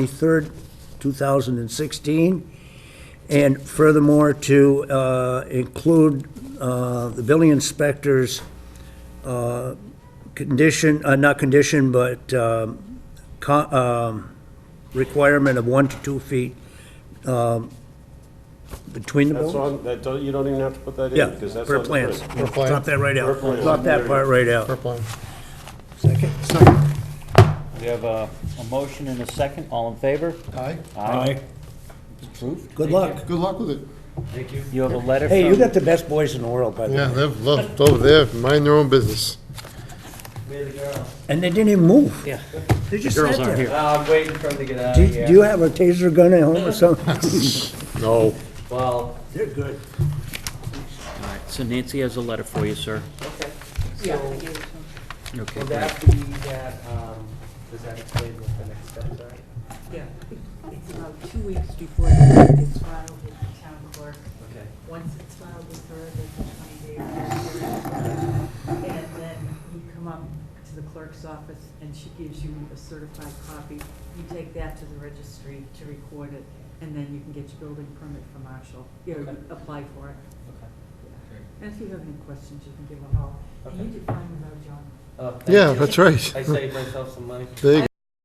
23rd, 2016. And furthermore, to uh, include uh, the building inspector's uh, condition, uh, not condition, but um, co- um, requirement of one to two feet um, between the That's buildings? on, that, don't- you don't even have to put that in, Yeah, because that's per on the plans. plan. plan. Drop that right Per out. plan. Drop that part right out. plan. We have a, a motion and a second, all in favor? Aye. Aye. Approved. Good luck. Good luck with it. You have a letter from. Hey, you got the best boys in the world, by the way. Yeah, they've left over there, mind their own business. And they didn't even move. Yeah. They just Girls sat aren't there. here. Uh, I'm waiting for him to get out Do of do you here. have a taser gun at home or something? No. Well, They're good. All right, so Nancy has a letter for you, sir. okay. So, Okay, will great. that be that, um, does that explain what the next steps are? Yeah, it's about two weeks before the it's filed with the town clerk. Okay. Once it's filed with her, there's a twenty day. And then you come up to the clerk's office and she gives you a certified copy. You take that to the registry to record it, and then you can get your building permit from Marshall, you know, Okay. apply for it. Okay. Great. And if you have any questions, you can give a call. And you Okay. did find them out, John. Oh, thank Yeah, you. that's right. I saved myself some money. There you